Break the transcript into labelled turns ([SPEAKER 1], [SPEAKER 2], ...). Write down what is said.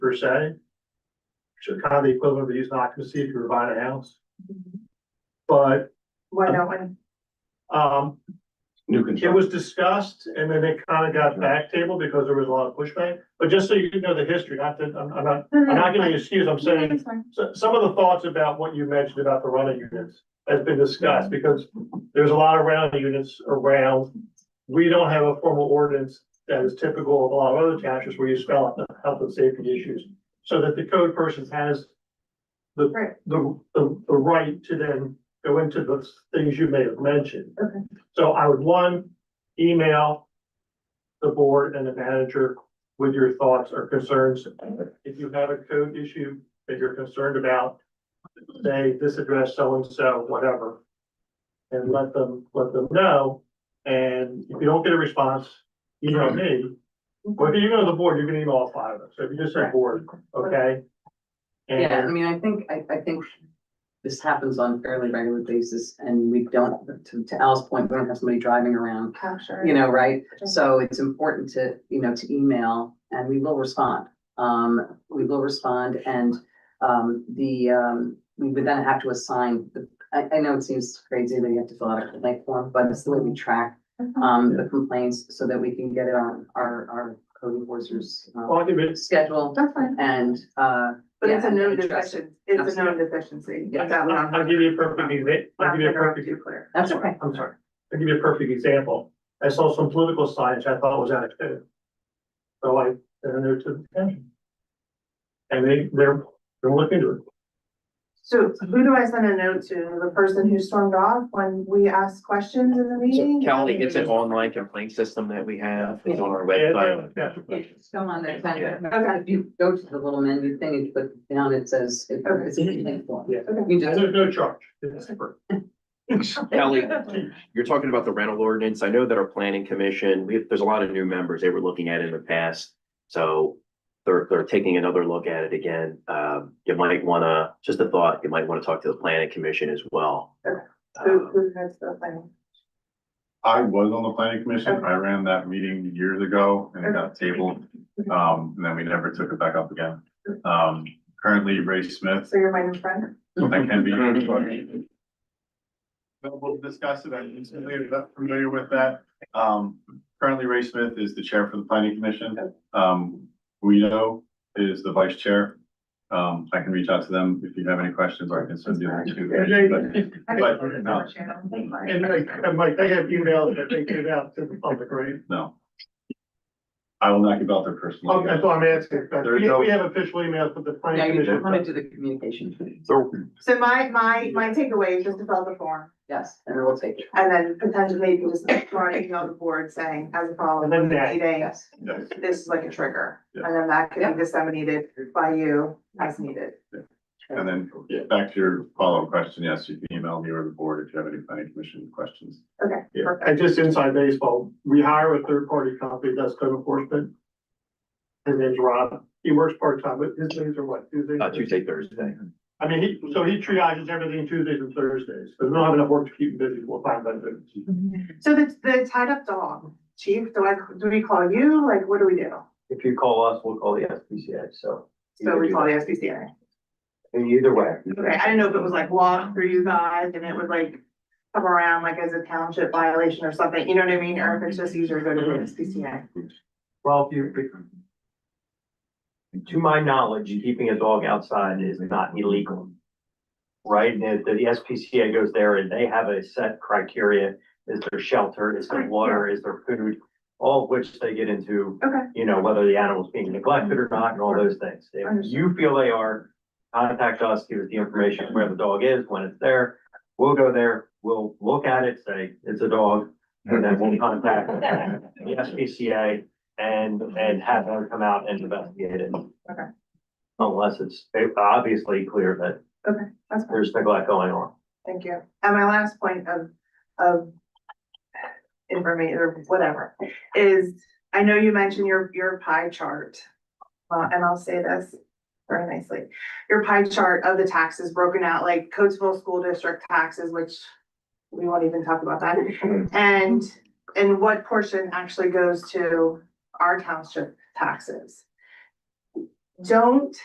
[SPEAKER 1] per se. Which are kind of the equivalent of the use and occupancy if you were buying a house, but,
[SPEAKER 2] Why don't we?
[SPEAKER 1] um,
[SPEAKER 3] New
[SPEAKER 1] it
[SPEAKER 3] construction.
[SPEAKER 1] was discussed and then it kind of got backtabled because there was a lot of pushback. But just so you know the history, not that, I'm, I'm not, I'm not giving you an excuse, I'm saying So some of the thoughts about what you mentioned about the rental units has been discussed because there's a lot of rental units around. We don't have a formal ordinance that is typical of a lot of other townships where you spell out the health and safety issues. So that the code person has the,
[SPEAKER 2] Right.
[SPEAKER 1] the, the, the right to then go into the things you may have mentioned.
[SPEAKER 2] Okay.
[SPEAKER 1] So I would, one, email the board and the manager with your thoughts or concerns. If you have a code issue, that you're concerned about, say, this address, so-and-so, whatever. And let them, let them know, and if you don't get a response, email me. Or if you go to the board, you can email all five of us, so if you just say board, okay?
[SPEAKER 4] Yeah, I
[SPEAKER 1] And,
[SPEAKER 4] mean, I think, I, I think this happens on a fairly regular basis and we don't, to, to Al's point, we don't have somebody driving around,
[SPEAKER 2] Capture.
[SPEAKER 4] you know, right?
[SPEAKER 2] Sure.
[SPEAKER 4] So it's important to, you know, to email and we will respond. Um, we will respond and, um, the, um, we would then have to assign, the- I, I know it seems crazy that you have to fill out a complaint form, but it's the way we track, um, the complaints so that we can get it on our, our code enforcers,
[SPEAKER 1] well,
[SPEAKER 4] uh,
[SPEAKER 1] I'll give it,
[SPEAKER 4] schedule
[SPEAKER 2] That's fine,
[SPEAKER 4] and, uh.
[SPEAKER 2] but it's a
[SPEAKER 4] yeah,
[SPEAKER 2] known
[SPEAKER 4] and address it.
[SPEAKER 2] deficiency, it's a known
[SPEAKER 1] Absolutely.
[SPEAKER 2] deficiency.
[SPEAKER 4] Yeah.
[SPEAKER 2] That one I'm-
[SPEAKER 1] I'll give you a perfect, exa- I'll
[SPEAKER 2] I'm
[SPEAKER 1] give you a
[SPEAKER 2] gonna have
[SPEAKER 1] perfect
[SPEAKER 2] to clear.
[SPEAKER 4] That's okay.
[SPEAKER 1] I'm sorry, I'll give you a perfect example. I saw some political signs I thought was out of code. So I, and they're to attention. And they, they're, they're looking to it.
[SPEAKER 2] So who do I send a note to? The person who stormed off when we asked questions in the
[SPEAKER 5] So
[SPEAKER 2] meeting?
[SPEAKER 5] Kelly, it's an online complaint system that we have, it's on our
[SPEAKER 1] Yeah,
[SPEAKER 5] website.
[SPEAKER 1] yeah, yeah.
[SPEAKER 4] It's still on there, kind of.
[SPEAKER 2] Okay.
[SPEAKER 4] If you go to the little menu thing and put down, it says, it- it's a complaint form.
[SPEAKER 1] Yeah.
[SPEAKER 4] You can
[SPEAKER 1] And
[SPEAKER 4] just,
[SPEAKER 1] there's no charge. It's separate.
[SPEAKER 5] Kelly, you're talking about the rental ordinance, I know that our planning commission, we, there's a lot of new members, they were looking at it in the past. So they're, they're taking another look at it again, um, you might wanna, just a thought, you might wanna talk to the planning commission as well.
[SPEAKER 2] Okay. Who,
[SPEAKER 5] Um,
[SPEAKER 2] who has the thing?
[SPEAKER 3] I was on the planning commission. I ran that meeting years ago and it got tabled. Um, and then we never took it back up again. Um, currently Ray Smith,
[SPEAKER 2] So you're my new friend?
[SPEAKER 3] that can be. Well, We'll discuss it. I'm familiar, not familiar with that. Um, currently Ray Smith is the chair for the planning commission. Um, Guido is the vice chair. Um, I can reach out to them if you have any questions or I can send you the
[SPEAKER 1] And
[SPEAKER 3] two.
[SPEAKER 1] they,
[SPEAKER 3] But- no.
[SPEAKER 1] and they, and Mike, they have emails that they give out to the public, right?
[SPEAKER 3] No. I will not give out their personal.
[SPEAKER 1] Okay, so I'm asking, uh,
[SPEAKER 3] There's
[SPEAKER 1] we,
[SPEAKER 3] no-
[SPEAKER 1] we have official emails from the
[SPEAKER 4] now
[SPEAKER 1] planning
[SPEAKER 4] you
[SPEAKER 1] commission.
[SPEAKER 4] just want to do the communication.
[SPEAKER 5] So
[SPEAKER 2] So my, my, my takeaway is just to fill out the form
[SPEAKER 4] Yes, and we'll take it.
[SPEAKER 2] and then potentially you just throw an email to the board saying, as a
[SPEAKER 1] And
[SPEAKER 2] follow-up
[SPEAKER 1] then
[SPEAKER 2] of the
[SPEAKER 1] that-
[SPEAKER 2] meeting,
[SPEAKER 4] Yes.
[SPEAKER 3] Yes.
[SPEAKER 2] this is like a trigger.
[SPEAKER 3] Yeah.
[SPEAKER 2] And then that can
[SPEAKER 4] Yeah.
[SPEAKER 2] be disseminated by you as needed.
[SPEAKER 3] And then back to your follow-up question, yes, you can email me or the board if you have any planning commission questions.
[SPEAKER 2] Okay,
[SPEAKER 1] Yeah,
[SPEAKER 2] perfect.
[SPEAKER 1] and just inside baseball, we hire a third party company that's code enforcement. His name's Rob, he works part time, but his days are what, Tuesdays?
[SPEAKER 5] uh, Tuesday, Thursday.
[SPEAKER 1] I mean, he, so he triages everything Tuesdays and Thursdays, so we don't have enough work to keep him busy, we'll find that.
[SPEAKER 2] So the, the tied up dog, chief, do I, do we call you? Like, what do we do?
[SPEAKER 6] If you call us, we'll call the SPCA, so.
[SPEAKER 2] So we call the SPCA.
[SPEAKER 6] Either way.
[SPEAKER 2] Okay, I didn't know if it was like walk through you guys and it would like come around like as a township violation or something, you know what I mean? Or if it's just easier to go to the SPCA.
[SPEAKER 6] Well, if you. To my knowledge, keeping a dog outside is not illegal. Right? And if the SPCA goes there and they have a set criteria, is there shelter, is there water, is there food? All of which they get into.
[SPEAKER 2] Okay.
[SPEAKER 6] You know, whether the animal's being neglected or not and all those things. If
[SPEAKER 2] Understood.
[SPEAKER 6] you feel they are, contact us, give us the information where the dog is, when it's there. We'll go there, we'll look at it, say, it's a dog, and then we'll contact the SPCA and, and have them come out and investigate it.
[SPEAKER 2] Okay.
[SPEAKER 6] Unless it's obviously clear that
[SPEAKER 2] That's fine.
[SPEAKER 6] there's neglect going on.
[SPEAKER 2] Thank you. And my last point of, of information or whatever is, I know you mentioned your, your pie chart. Uh, and I'll say this very nicely, your pie chart of the taxes broken out, like Coatesville School District taxes, which we won't even talk about that. And, and what portion actually goes to our township taxes? don't